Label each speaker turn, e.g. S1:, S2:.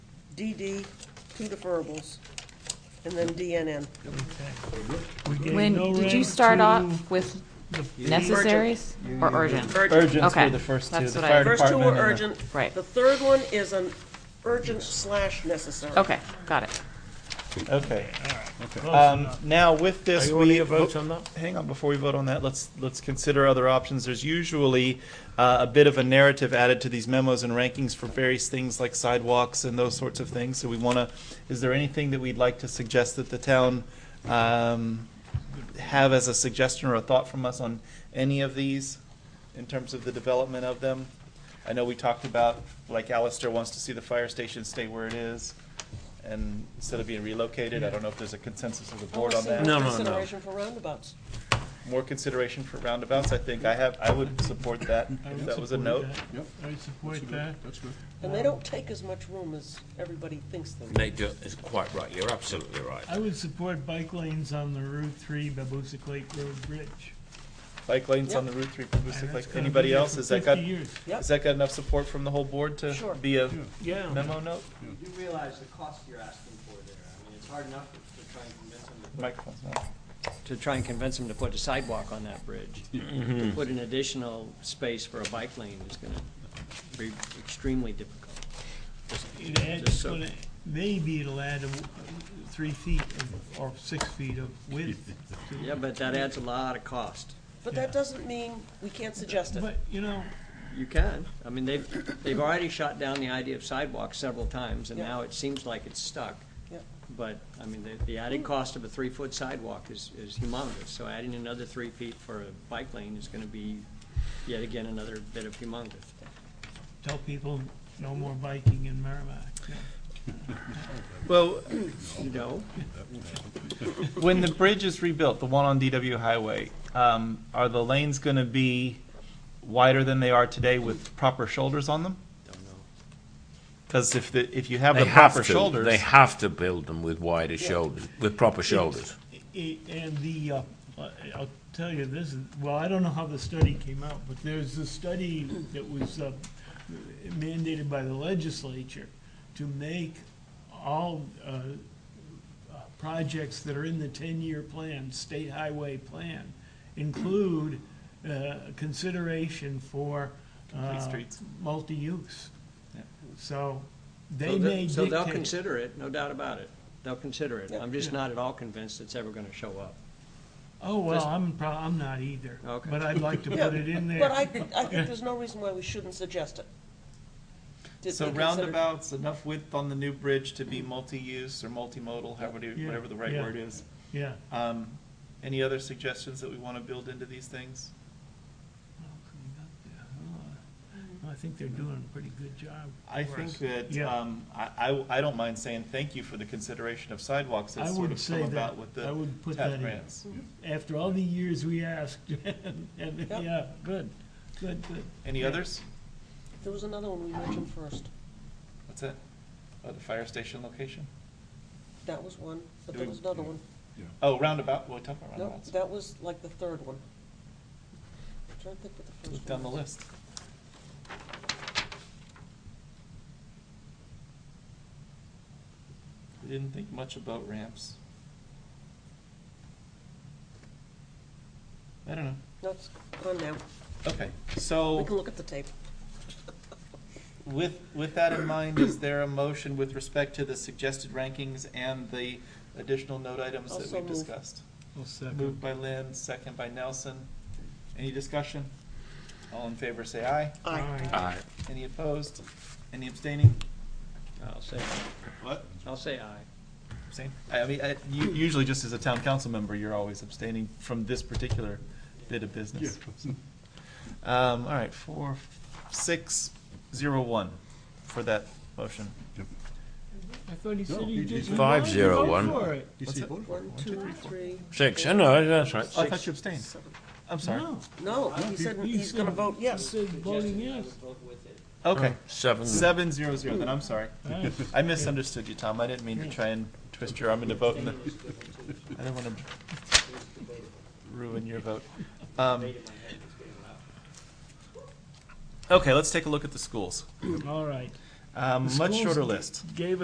S1: DD, two deferables, and then DNN.
S2: We gave
S3: Lynn,
S2: no
S3: did you
S2: rank
S3: start
S2: to
S3: off with
S2: the-
S3: necessaries or urgent?
S4: Urgents
S3: Okay,
S4: were the first two,
S3: that's
S4: the
S3: what I-
S4: fire department.
S1: First two were
S4: and the-
S1: urgent.
S3: Right.
S1: The third one is an urgent slash necessary.
S3: Okay, got it.
S4: Okay,
S2: Close
S4: um,
S2: enough.
S4: now with
S2: uh, Are
S4: this,
S2: you
S4: we.
S2: on your votes on that?
S4: hang on before we vote on that let's let's consider other options there's usually uh, a bit of a narrative added to these memos and rankings for various things like sidewalks and those sorts of things so we want to is there anything that we'd like to suggest that the town um, have as a suggestion or a thought from us on any of these in terms of the development of them i know we talked about like Alistair wants to see the fire station stay where it is and instead of being relocated i don't know if there's a consensus of the board on that
S2: No, no, no.
S1: Consideration for roundabouts.
S4: more consideration for roundabouts, I think I have, I would support that,
S2: I
S4: if
S2: would
S4: that was a
S2: support
S4: note.
S2: that.
S5: Yep.
S2: I would support that.
S5: That's good.
S1: And they don't take as much room as everybody thinks they do.
S6: They do, it's quite right, you're absolutely right.
S2: I would support bike lanes on the Route Three Babusick Lake Road Bridge.
S4: Bike lanes on the
S1: Yep.
S4: Route Three, Pabusick
S2: And
S4: Lake,
S2: that's gonna be
S4: anybody
S2: there
S4: else,
S2: for
S4: has that got,
S2: 50 years.
S4: has that got enough support from the whole board
S1: Sure.
S4: to be a
S2: Yeah.
S4: memo note?
S7: You realize the cost you're asking for there. I mean, it's hard enough to try and convince them to put.
S4: Microphone's not,
S7: To try and convince them to put a sidewalk on that bridge. To put an additional space for a bike lane is gonna be extremely difficult. Just-
S2: It adds,
S7: just so-
S2: gonna- maybe it'll add a w- three feet of- or six feet of width. to-
S7: Yeah, but that adds a lot of cost.
S1: But
S2: Yeah.
S1: that doesn't mean we can't suggest it.
S2: But, you know,
S7: You can. I mean, they've, they've already shot down the idea of sidewalks several times, and
S1: Yeah.
S7: now it seems like it's stuck.
S1: Yeah.
S7: But, I mean, the, the added cost of a three-foot sidewalk is, is humongous, so adding another three feet for a bike lane is gonna be yet again another bit of humongous.
S2: tell people no more biking in Merrimack.
S4: well,
S7: You know,
S4: when the bridge is rebuilt, the one on DW Highway, um, are the lanes gonna be wider than they are today with proper shoulders on them?
S7: don't know.
S4: Cause if the, if you have
S6: They
S4: the proper
S6: have to-
S4: shoulders.
S6: They have to build them with wider shoulders, with proper shoulders.
S2: I- And the, uh, I- I'll tell you, this, is- well, I don't know how the study came out, but there's a study that was uh, mandated by the legislature to make all uh, uh, projects that are in the ten-year plan, state highway plan, include uh, consideration for. uh,
S4: streets.
S2: Multi-use.
S4: Yeah.
S2: So they may
S7: So they- So they'll
S2: dictate.
S7: consider it, no doubt about it. They'll consider it. I'm just not at all convinced it's ever gonna show up.
S2: Oh, well, I'm, pro- I'm not either.
S7: Okay.
S2: But I'd like to
S1: Yeah,
S2: put it in there.
S1: But I, I think there's no reason why we shouldn't suggest it. Did
S4: So
S1: we consider-
S4: roundabouts, enough width on the new bridge to be multi-use or multimodal, however,
S2: Yeah,
S4: whatever the right
S2: yeah.
S4: word is.
S2: Yeah.
S4: Um, any other suggestions that we want to build into these things?
S2: Oh, I think they're doing a pretty good job.
S4: I
S2: for
S4: think
S2: us.
S4: that,
S2: Yeah.
S4: um, I, I, I don't mind saying thank you for the consideration of sidewalks
S2: I
S4: that's sort
S2: would
S4: of come
S2: say that,
S4: about with
S2: I
S4: the
S2: would put that
S4: TAP
S2: in.
S4: grants.
S2: After all the years we asked, and, and,
S1: Yep.
S2: yeah, good, good, good.
S4: Any others?
S1: There was another one we mentioned first.
S4: What's that? Oh, the fire station location?
S1: That was one, but there
S4: Do we-
S1: was another one.
S4: Oh, roundabout, we talked about
S1: No,
S4: roundabouts.
S1: that was like the third one. I'm trying to think what the
S4: Look
S1: first
S4: down
S1: one
S4: the
S1: was.
S4: list. We didn't think much about ramps. I don't know.
S1: That's on now.
S4: Okay, so.
S1: We can look at the tape.
S4: With, with that in mind, is there a motion with respect to the suggested rankings and the additional note items that
S1: Also
S4: we've
S1: move.
S4: discussed?
S2: I'll
S4: Moved by Lynn, second by Nelson. Any discussion? All in favor, say aye.
S6: Aye.
S4: Any opposed? Any abstaining?
S7: I'll say,
S4: What?
S7: I'll say aye.
S4: Abstain? I I mean, I- you- usually just as a town council member, you're always abstaining from this particular bit of business. Um, all right, four, six, zero, one for that motion.
S2: I thought he said
S5: No,
S2: he
S5: he-
S2: did.
S5: he's-
S6: Five zero one.
S5: You see, voted for it.
S1: One, two, three.
S6: Six, I know, that's right.
S4: Oh, I thought you abstained.
S1: seven.
S4: I'm sorry.
S2: No.
S1: No, he said
S2: he-
S1: he's gonna vote
S2: He
S1: yes.
S2: said voting yes.
S4: Okay.
S6: Seven.
S4: Seven zero zero, then I'm sorry.
S2: Right.
S4: I misunderstood you, Tom. I didn't mean to try and twist your arm into voting. the- I didn't want to ruin your vote. Um, Okay, let's take a look at the schools.
S2: All right.
S4: Um,
S2: The
S4: Much
S2: schools
S4: Um, shorter list.
S2: Gave